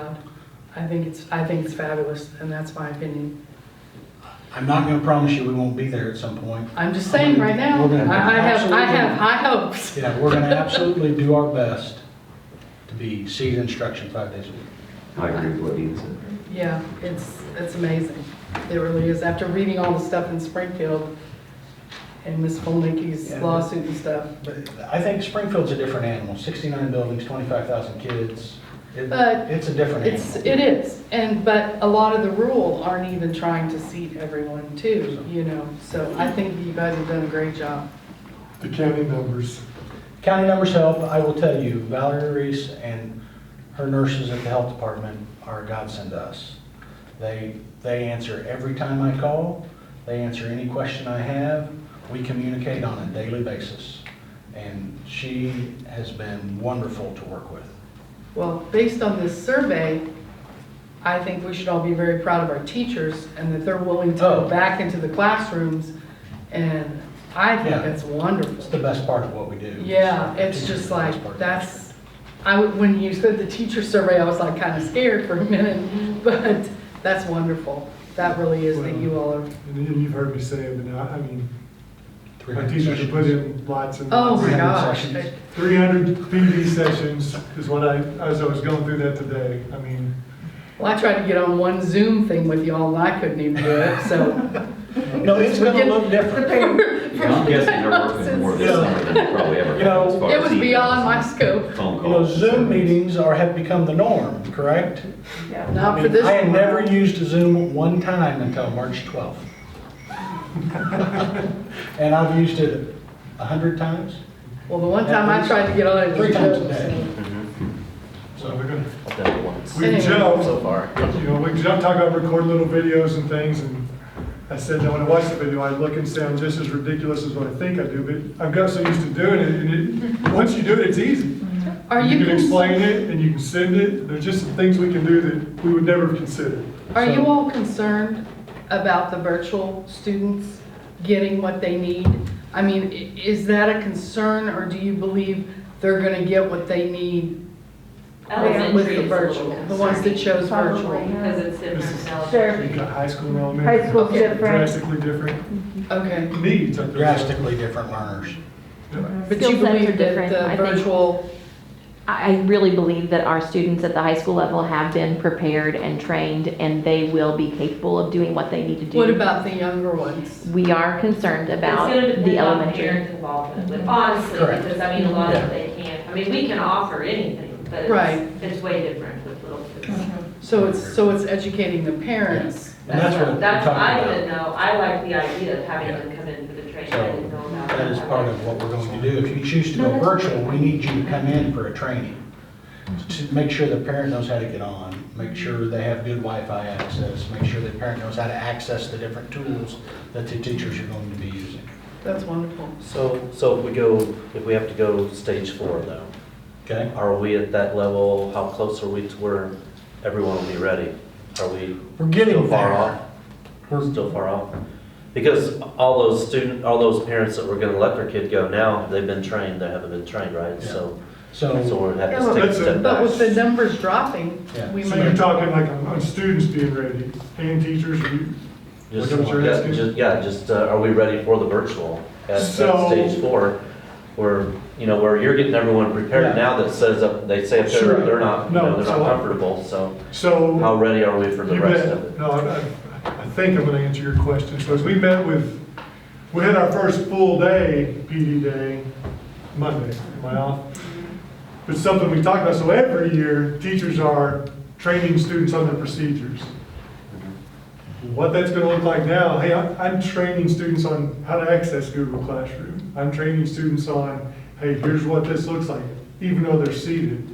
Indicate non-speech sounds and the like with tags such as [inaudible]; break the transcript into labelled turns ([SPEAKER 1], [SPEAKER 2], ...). [SPEAKER 1] I think it's, I think it's fabulous, and that's my opinion.
[SPEAKER 2] I'm not gonna promise you we won't be there at some point.
[SPEAKER 1] I'm just saying right now,
[SPEAKER 2] We're gonna-
[SPEAKER 1] I I have, I
[SPEAKER 2] absolutely.
[SPEAKER 1] have high hopes.
[SPEAKER 2] Yeah, we're gonna absolutely do our best to be seed instruction five days a week.
[SPEAKER 3] I agree with what Dean said.
[SPEAKER 1] Yeah, it's, it's amazing. It really is. After reading all the stuff in Springfield and Ms. Folnicki's
[SPEAKER 2] Yeah.
[SPEAKER 1] lawsuit and stuff.
[SPEAKER 2] But I think Springfield's a different animal, 69 buildings, 25,000 kids. It-
[SPEAKER 1] But
[SPEAKER 2] It's a different
[SPEAKER 1] It's,
[SPEAKER 2] animal.
[SPEAKER 1] it is, and, but a lot of the rural aren't even trying to seat everyone too, you know? So I think you guys have done a great job.
[SPEAKER 4] The county numbers.
[SPEAKER 2] County numbers help, I will tell you, Valerie Reese and her nurses at the health department are a godsend to us. They, they answer every time I call, they answer any question I have, we communicate on a daily basis. And she has been wonderful to work with.
[SPEAKER 1] Well, based on this survey, I think we should all be very proud of our teachers and that they're willing to
[SPEAKER 2] Oh.
[SPEAKER 1] go back into the classrooms. And I think
[SPEAKER 2] Yeah.
[SPEAKER 1] that's
[SPEAKER 2] It's the
[SPEAKER 1] wonderful.
[SPEAKER 2] best part of what we do.
[SPEAKER 1] Yeah, it's
[SPEAKER 2] Teachers are
[SPEAKER 1] just
[SPEAKER 2] the best
[SPEAKER 1] like,
[SPEAKER 2] part.
[SPEAKER 1] that's, I, would- when you said the teacher survey, I was like kind of scared for a minute, but that's wonderful. That really is that you all are,
[SPEAKER 4] And you- you've heard me say, it, but I I mean, my
[SPEAKER 2] 300
[SPEAKER 4] teachers have put
[SPEAKER 2] sessions.
[SPEAKER 4] in lots and
[SPEAKER 1] oh
[SPEAKER 4] lots.
[SPEAKER 1] my
[SPEAKER 2] Three hundred
[SPEAKER 1] gosh.
[SPEAKER 2] sessions.
[SPEAKER 4] Three hundred PD sessions is what I, as I was going through that today, I mean,
[SPEAKER 1] Well, I tried to get on one Zoom thing with y'all and I couldn't even do it, so.
[SPEAKER 2] No, it's gonna look different.
[SPEAKER 3] I'm guessing they're
[SPEAKER 1] [laughs]
[SPEAKER 3] working more this summer than they probably ever
[SPEAKER 2] You
[SPEAKER 3] have as
[SPEAKER 2] know,
[SPEAKER 3] far as.
[SPEAKER 1] It was
[SPEAKER 3] emails
[SPEAKER 1] beyond my
[SPEAKER 3] and
[SPEAKER 1] scope,
[SPEAKER 3] Phone
[SPEAKER 2] You know,
[SPEAKER 3] calls.
[SPEAKER 2] Zoom meetings are, have become the norm, correct?
[SPEAKER 1] not
[SPEAKER 2] I
[SPEAKER 1] for
[SPEAKER 2] mean,
[SPEAKER 1] this.
[SPEAKER 2] I had
[SPEAKER 1] one.
[SPEAKER 2] never used Zoom one time until March 12th. And I've used it a 100 times,
[SPEAKER 1] Well, the one time I tried to get on it. it was
[SPEAKER 2] three times a
[SPEAKER 1] jokes.
[SPEAKER 2] day.
[SPEAKER 4] so we're gonna,
[SPEAKER 5] I've done it once
[SPEAKER 4] we can
[SPEAKER 1] Anyway.
[SPEAKER 4] jump,
[SPEAKER 5] so far.
[SPEAKER 4] you know, we can jump, talk about recording little videos and things, and I said, now when I watch the video, I look and sound just as ridiculous as what I think I do, but I've got so used to doing it, and it, once you do it, it's easy.
[SPEAKER 1] Are you,
[SPEAKER 4] You can
[SPEAKER 1] cons-
[SPEAKER 4] explain it, and you can send it, there's just some things we can do that we would never have considered.
[SPEAKER 1] are you all concerned about the virtual students getting what they need? I mean, i- is that a concern, or do you believe they're gonna get what they need Oh, with
[SPEAKER 6] Elementary
[SPEAKER 1] the
[SPEAKER 6] is a little
[SPEAKER 1] virtual? The ones that
[SPEAKER 6] concerning,
[SPEAKER 1] chose virtual?
[SPEAKER 7] Probably.
[SPEAKER 6] Because it's different. than
[SPEAKER 7] Sure.
[SPEAKER 4] You've got high school and elementary.
[SPEAKER 7] High school's
[SPEAKER 1] Okay.
[SPEAKER 7] different.
[SPEAKER 4] drastically different
[SPEAKER 1] Okay,
[SPEAKER 4] needs. I think.
[SPEAKER 2] drastically different learners.
[SPEAKER 4] Yeah.
[SPEAKER 1] but
[SPEAKER 7] Skill
[SPEAKER 1] you
[SPEAKER 7] sets are
[SPEAKER 1] believe that
[SPEAKER 7] different,
[SPEAKER 1] the
[SPEAKER 7] I think.
[SPEAKER 1] virtual,
[SPEAKER 8] I I really believe that our students at the high school level have been prepared and trained, and they will be capable of doing what they need to do.
[SPEAKER 1] what about the younger ones?
[SPEAKER 8] We are concerned about
[SPEAKER 6] It's gonna
[SPEAKER 8] the
[SPEAKER 6] depend on
[SPEAKER 8] elementary.
[SPEAKER 6] parent involvement, with- honestly,
[SPEAKER 2] Correct.
[SPEAKER 6] because I mean, a lot of they can't, I mean, we can offer anything, but
[SPEAKER 1] Right.
[SPEAKER 6] it's, it's way different with little kids.
[SPEAKER 8] Mm-hmm.
[SPEAKER 1] So it's, so it's educating the parents.
[SPEAKER 2] And that's what we're
[SPEAKER 6] That's, I
[SPEAKER 2] talking
[SPEAKER 6] didn't
[SPEAKER 2] about.
[SPEAKER 6] know, I like the idea of having
[SPEAKER 2] Yeah.
[SPEAKER 6] them come in for the training, I
[SPEAKER 2] So
[SPEAKER 6] didn't know about that.
[SPEAKER 2] that is part of what we're going to do. If you choose to go virtual, we need you to come in for a training. To make sure the parent knows how to get on, make sure they have good Wi-Fi access, make sure the parent knows how to access the different tools that the teachers are going to be using.
[SPEAKER 1] That's wonderful.
[SPEAKER 5] So, so if we go, if we have to go to stage four though,
[SPEAKER 2] Okay?
[SPEAKER 5] are we at that level? How close are we to where everyone will be ready? Are we
[SPEAKER 2] We're getting
[SPEAKER 5] Still far
[SPEAKER 2] there.
[SPEAKER 5] off.
[SPEAKER 2] We're-
[SPEAKER 5] still far off? Because all those student, all those parents that were gonna let their kid go now, they've been trained, they haven't been trained, right? So, so
[SPEAKER 2] So,
[SPEAKER 5] we're gonna
[SPEAKER 1] Yeah,
[SPEAKER 5] have to take a step
[SPEAKER 1] But
[SPEAKER 5] back.
[SPEAKER 1] with the numbers dropping,
[SPEAKER 2] Yeah.
[SPEAKER 1] we
[SPEAKER 4] So you're
[SPEAKER 1] might,
[SPEAKER 4] talking like on on students being ready and teachers, you-
[SPEAKER 5] Just,
[SPEAKER 4] Which ones are
[SPEAKER 5] yeah,
[SPEAKER 4] asking?
[SPEAKER 5] just, yeah, just, uh, are we ready for the virtual at, at
[SPEAKER 4] So-
[SPEAKER 5] stage four? Where, you know, where you're getting everyone
[SPEAKER 2] Yeah.
[SPEAKER 5] prepared now that says, up they say if
[SPEAKER 4] Sure.
[SPEAKER 5] they're, they're not, you
[SPEAKER 4] No,
[SPEAKER 5] know, they're
[SPEAKER 4] so-
[SPEAKER 5] not comfortable, so
[SPEAKER 4] so.
[SPEAKER 5] how ready are we for the
[SPEAKER 4] you
[SPEAKER 5] rest
[SPEAKER 4] bet.
[SPEAKER 5] of it?
[SPEAKER 4] No, I, I- I think I'm gonna answer your question. So as we met with, we had our first full day, PD day, Monday, am I off? But something we talked about, so every year, teachers are training students on their procedures.
[SPEAKER 5] Mm-hmm.
[SPEAKER 4] what that's gonna look like now, hey, I'm, I'm training students on how to access Google Classroom. I'm training students on, hey, here's what this looks like, even though they're seated.